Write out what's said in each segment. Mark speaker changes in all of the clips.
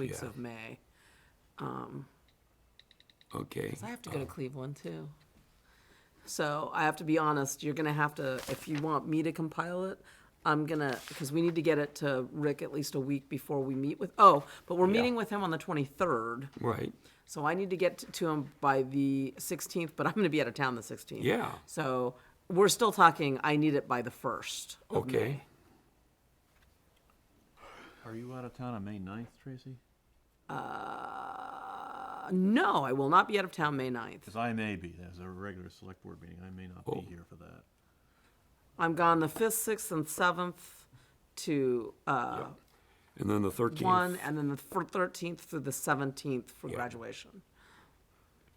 Speaker 1: weeks
Speaker 2: Yeah.
Speaker 1: of May.
Speaker 2: Okay.
Speaker 1: 'Cause I have to go to Cleveland too. So I have to be honest, you're gonna have to, if you want me to compile it, I'm gonna, because we need to get it to Rick at least a week before we meet with, oh, but we're meeting with him on the twenty-third.
Speaker 2: Right.
Speaker 1: So I need to get to him by the sixteenth, but I'm gonna be out of town the sixteenth.
Speaker 2: Yeah.
Speaker 1: So we're still talking, I need it by the first.
Speaker 2: Okay.
Speaker 3: Are you out of town on May 9th, Tracy?
Speaker 1: Uh, no, I will not be out of town May ninth.
Speaker 3: Because I may be, there's a regular select board meeting, I may not be here for that.
Speaker 1: I'm gone the fifth, sixth, and seventh to uh,
Speaker 2: And then the 13th.
Speaker 1: one, and then the thirteenth through the seventeenth for graduation.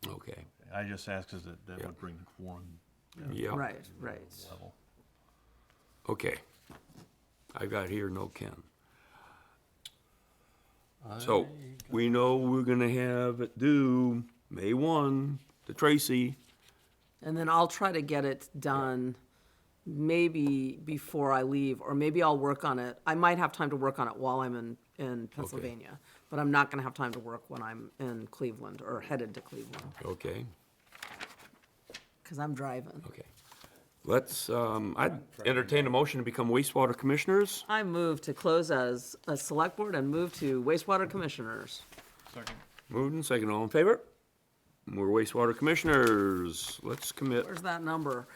Speaker 2: Okay.
Speaker 3: I just asked because that, that
Speaker 2: Yeah.
Speaker 3: would bring the quorum
Speaker 2: Yeah.
Speaker 1: Right, right.
Speaker 3: level.
Speaker 2: Okay. I got here, no Ken. So we know we're gonna have it due May one to Tracy.
Speaker 1: And then I'll try to get it done maybe before I leave, or maybe I'll work on it. I might have time to work on it while I'm in, in Pennsylvania, but I'm not gonna have time to work when I'm in Cleveland or headed to Cleveland,
Speaker 2: Okay.
Speaker 1: because I'm driving.
Speaker 2: Okay. Let's, um, I'd entertain a motion to become wastewater commissioners.
Speaker 1: I move to close as a select board and move to wastewater commissioners.
Speaker 3: Second.
Speaker 2: Moved and second, all in favor? We're wastewater commissioners. Let's commit.
Speaker 1: Where's that number?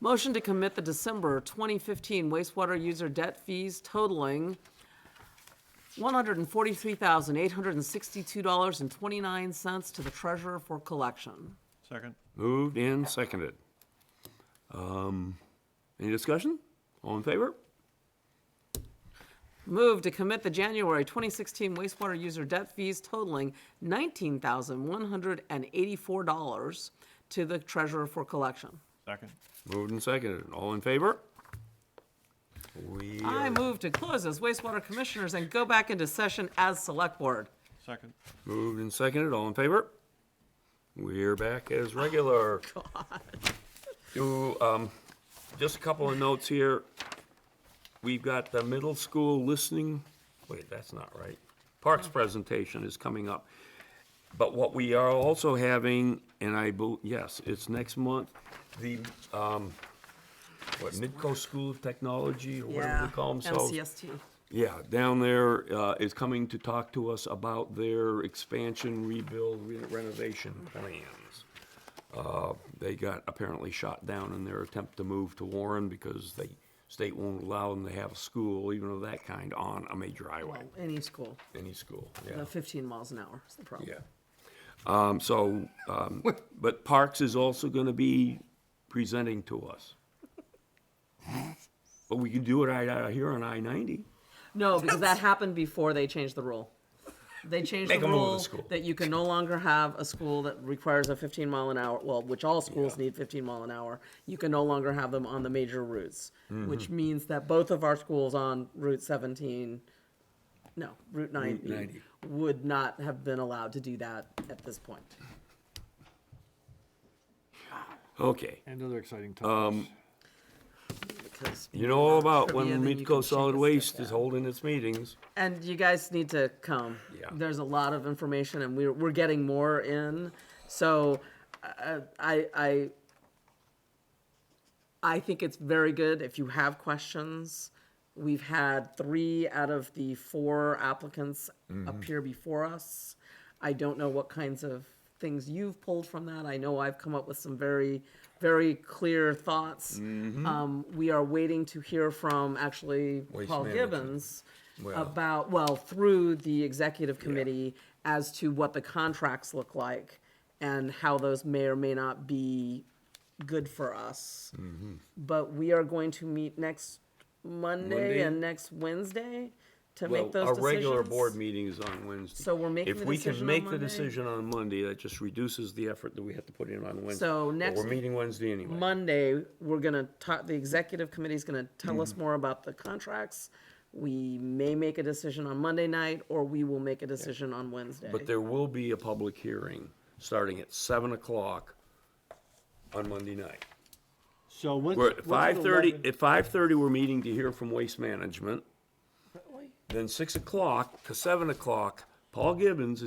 Speaker 1: Motion to commit the December 2015 wastewater user debt fees totaling $143,862.29 to the treasurer for collection.
Speaker 3: Second.
Speaker 2: Moved and seconded. Um, any discussion? All in favor?
Speaker 1: Move to commit the January 2016 wastewater user debt fees totaling $19,184 to the treasurer for collection.
Speaker 3: Second.
Speaker 2: Moved and seconded. All in favor? We,
Speaker 1: I move to close as wastewater commissioners and go back into session as select board.
Speaker 3: Second.
Speaker 2: moved and seconded. All in favor? We're back as regular. Do, um, just a couple of notes here. We've got the middle school listening, wait, that's not right. Parks presentation is coming up. But what we are also having, and I, bel- yes, it's next month, the, um, what, Midco School of Technology, or whatever they call themselves.
Speaker 1: MCST.
Speaker 2: Yeah, down there uh, is coming to talk to us about their expansion, rebuild, re- renovation plans. Uh, They got apparently shot down in their attempt to move to Warren because they, state won't allow them to have a school, even of that kind, on a major highway,
Speaker 1: Well, any school.
Speaker 2: any school,
Speaker 1: No,
Speaker 2: yeah,
Speaker 1: 15 miles an hour is the problem.
Speaker 2: yeah. Um, So, um, but Parks is also gonna be presenting to us. But we can do it right out of here on I-90.
Speaker 1: No, because that happened before they changed the rule. They changed
Speaker 2: Make
Speaker 1: the
Speaker 2: 'em move to
Speaker 1: rule
Speaker 2: school.
Speaker 1: that you can no longer have a school that requires a 15 mile an hour, well, which all schools need 15 mile an hour. You can no longer have them on the major routes,
Speaker 2: Mm-hmm.
Speaker 1: which means that both of our schools on Route 17, no, Route 90,
Speaker 2: 90.
Speaker 1: would not have been allowed to do that at this point.
Speaker 2: Okay.
Speaker 4: And other exciting topics.
Speaker 1: Because
Speaker 2: You know all about
Speaker 1: trivia,
Speaker 2: when
Speaker 1: then you can
Speaker 2: Midco
Speaker 1: shake
Speaker 2: Solid
Speaker 1: a stick
Speaker 2: Waste
Speaker 1: at.
Speaker 2: is holding its meetings.
Speaker 1: And you guys need to come.
Speaker 2: Yeah.
Speaker 1: There's a lot of information, and we're we're getting more in. So, uh, I I I think it's very good if you have questions. We've had three out of the four applicants
Speaker 2: Mm-hmm.
Speaker 1: appear before us. I don't know what kinds of things you've pulled from that. I know I've come up with some very, very clear thoughts.
Speaker 2: Mm-hmm.
Speaker 1: Um, we are waiting to hear from actually
Speaker 2: Waste
Speaker 1: Paul
Speaker 2: management.
Speaker 1: Gibbons
Speaker 2: Well.
Speaker 1: about, well, through the executive committee as to what the contracts look like and how those may or may not be good for us.
Speaker 2: Mm-hmm.
Speaker 1: But we are going to meet next Monday,
Speaker 2: Monday?
Speaker 1: and next Wednesday to
Speaker 2: Well,
Speaker 1: make those
Speaker 2: our
Speaker 1: decisions.
Speaker 2: regular board meeting is on Wednesday.
Speaker 1: So we're making the
Speaker 2: If we
Speaker 1: decision
Speaker 2: can
Speaker 1: on
Speaker 2: make the
Speaker 1: Monday?
Speaker 2: decision on Monday, that just reduces the effort that we have to put in on Wednesday.
Speaker 1: So
Speaker 2: But
Speaker 1: next
Speaker 2: We're meeting Wednesday anyway.
Speaker 1: Monday, we're gonna talk, the executive committee's gonna tell
Speaker 2: Mm-hmm.
Speaker 1: us more about the contracts. We may make a decision on Monday night, or we will make a decision on Wednesday.
Speaker 2: But there will be a public hearing starting at seven o'clock on Monday night.
Speaker 4: So when's?
Speaker 2: We're at
Speaker 4: when's
Speaker 2: five thirty,
Speaker 4: 11
Speaker 2: at five thirty, we're meeting to hear from Waste Management. Then six o'clock to seven o'clock, Paul Gibbons